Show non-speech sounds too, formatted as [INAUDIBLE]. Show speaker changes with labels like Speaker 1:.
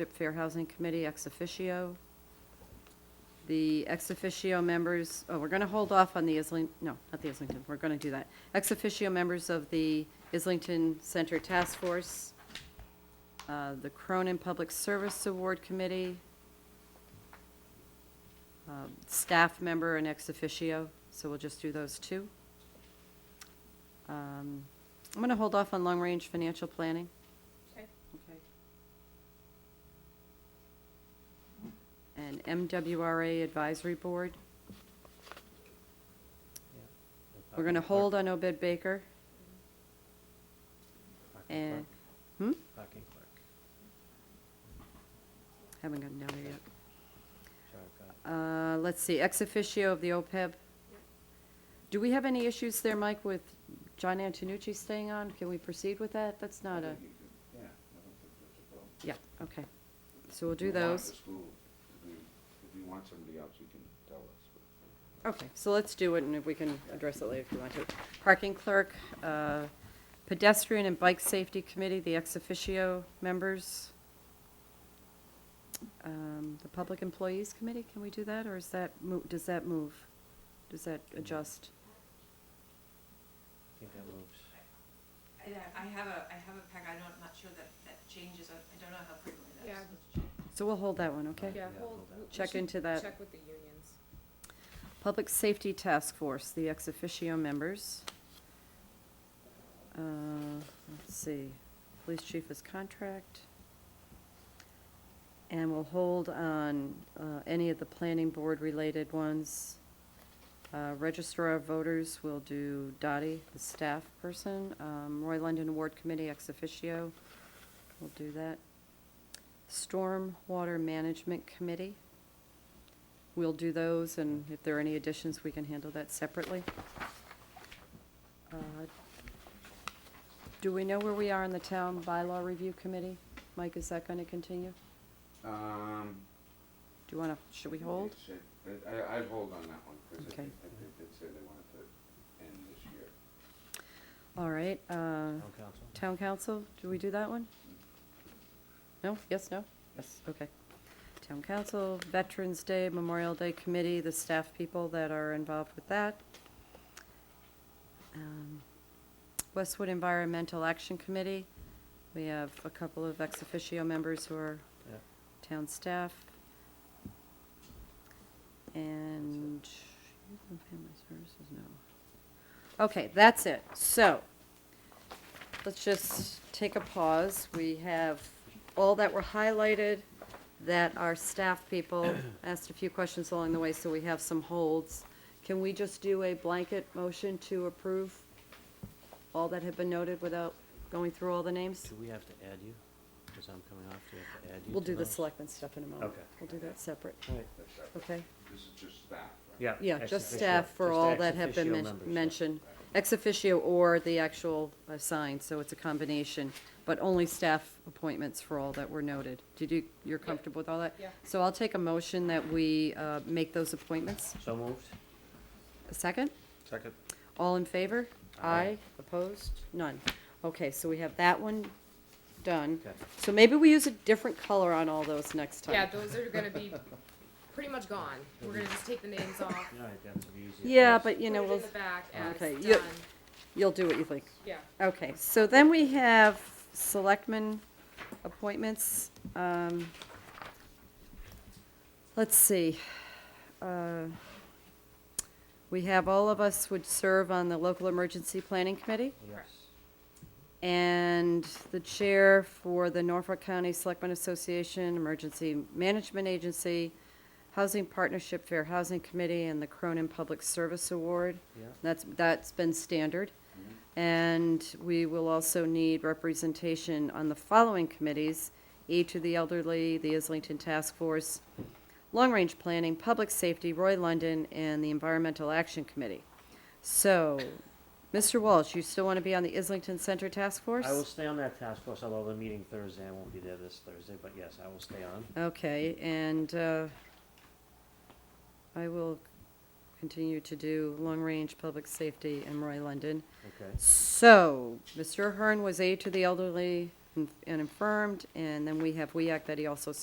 Speaker 1: Ship Fair Housing Committee ex officio. The ex officio members, oh, we're going to hold off on the Islington, no, not the Islington, we're going to do that. Ex officio members of the Islington Center Task Force, uh, the Cronin Public Service Award Committee, um, staff member and ex officio, so we'll just do those two. Um, I'm going to hold off on long-range financial planning.
Speaker 2: Okay.
Speaker 1: Okay. And MWRA Advisory Board, we're going to hold on Obed Baker, and, hmm?
Speaker 3: Parking clerk.
Speaker 1: Haven't gotten down there yet.
Speaker 3: Sure, I've got
Speaker 1: Uh,
Speaker 3: it.
Speaker 1: let's see, ex officio of the OPEB. Do we have any issues there, Mike, with John Antonucci staying on? Can we proceed with that? That's not a,
Speaker 4: Yeah, I don't think that's a problem.
Speaker 1: yeah, okay. So we'll do
Speaker 4: If you want
Speaker 1: those.
Speaker 4: the school to do- If you want somebody else, you can tell us. but-
Speaker 1: Okay, so let's do it, and if we can address it later if you want to. Parking clerk, uh, pedestrian and bike safety committee, the ex officio members. Um, The public employees committee, can we do that, or is that, mo- does that move? Does that adjust?
Speaker 3: I think that moves.
Speaker 5: I, I have a, I have a pack, I don't, I'm not sure that, that changes, I I don't know how frequently that's
Speaker 2: Yeah.
Speaker 5: supposed to change.
Speaker 1: So we'll hold that one, okay?
Speaker 2: Yeah,
Speaker 3: Yeah,
Speaker 2: hold.
Speaker 3: hold that.
Speaker 2: we
Speaker 1: Check
Speaker 2: should
Speaker 1: into that.
Speaker 2: Check with the unions.
Speaker 1: Public Safety Task Force, the ex officio members. Uh, Let's see, police chief is contract. And we'll hold on uh, any of the planning board-related ones. Uh, Registrar of Voters, we'll do Dottie, the staff person. Um, Roy London Award Committee, ex officio, we'll do that. Stormwater Management Committee. We'll do those, and if there are any additions, we can handle that separately. Uh, Do we know where we are in the town bylaw review committee? Mike, is that going to continue?
Speaker 4: Um.
Speaker 1: Do you want to, should we hold?
Speaker 4: it should- I- I, I'd hold on that one, because I
Speaker 1: Okay.
Speaker 4: think, I think they said they wanted to end this year.
Speaker 1: All right, uh,
Speaker 3: Town council?
Speaker 1: town council, do we do that one? No, yes, no? Yes, okay. Town council, Veterans Day, Memorial Day Committee, the staff people that are involved with that. Um, Westwood Environmental Action Committee, we have a couple of ex officio members who are
Speaker 3: Yeah.
Speaker 1: town staff. And Youth and Family Services, no. Okay, that's it. So, let's just take a pause. We have all that were highlighted that our staff
Speaker 3: [COUGHS]
Speaker 1: people asked a few questions along the way, so we have some holds. Can we just do a blanket motion to approve all that have been noted without going through all the names?
Speaker 3: Do we have to add you? Because I'm coming off, do we have to add you
Speaker 1: We'll
Speaker 3: to
Speaker 1: do the
Speaker 3: those?
Speaker 1: selectmen stuff in a moment.
Speaker 3: Okay.
Speaker 1: We'll do that separate,
Speaker 3: All right.
Speaker 4: That's that.
Speaker 1: okay?
Speaker 4: This is just staff, right?
Speaker 3: Yeah.
Speaker 1: Yeah,
Speaker 3: ex
Speaker 1: just
Speaker 3: officio-
Speaker 1: staff for
Speaker 3: just
Speaker 1: all
Speaker 3: ex
Speaker 1: that have been
Speaker 3: officio
Speaker 1: men-
Speaker 3: members, yeah.
Speaker 1: mentioned. Ex officio or the actual assigned, so it's a combination, but only staff appointments for all that were noted. Did you, you're comfortable with all that?
Speaker 2: Yeah.
Speaker 1: So I'll take a motion that we uh, make those appointments.
Speaker 3: So moved?
Speaker 1: A second?
Speaker 3: Second.
Speaker 1: All in favor?
Speaker 3: Aye.
Speaker 1: Opposed? None. Okay, so we have that one done.
Speaker 3: Okay.
Speaker 1: So maybe we use a different color on all those next time.
Speaker 2: Yeah, those are gonna be pretty much gone. We're gonna just take the names off.
Speaker 3: All right, that's the easiest.
Speaker 1: Yeah,
Speaker 3: place.
Speaker 1: but you know,
Speaker 2: Put it in
Speaker 1: we'll,
Speaker 2: the back as
Speaker 1: Okay,
Speaker 2: done.
Speaker 1: yeah. you'll do what you think.
Speaker 2: Yeah,
Speaker 1: Okay, so then we have selectmen appointments. Um, Let's see. Uh, We have, all of us would serve on the local emergency planning committee.
Speaker 3: Yes.
Speaker 1: And the chair for the Norfolk County Selectmen Association, Emergency Management Agency, Housing Partnership Fair Housing Committee, and the Cronin Public Service Award.
Speaker 3: Yeah.
Speaker 1: That's, that's been standard. And we will also need representation on the following committees, aid to the elderly, the Islington Task Force, Long Range Planning, Public Safety, Roy London, and the Environmental Action Committee. So, Mr. Walsh, you still want to be on the Islington Center Task Force?
Speaker 3: I will stay on that task force, although the meeting Thursday, I won't be there this Thursday, but yes, I will stay on.
Speaker 1: Okay, and uh, I will continue to do Long Range, Public Safety, and Roy London.
Speaker 3: Okay.
Speaker 1: So, Mr. Hearn was aide to the elderly, and and and Affirmed, and then we have WEAC that he also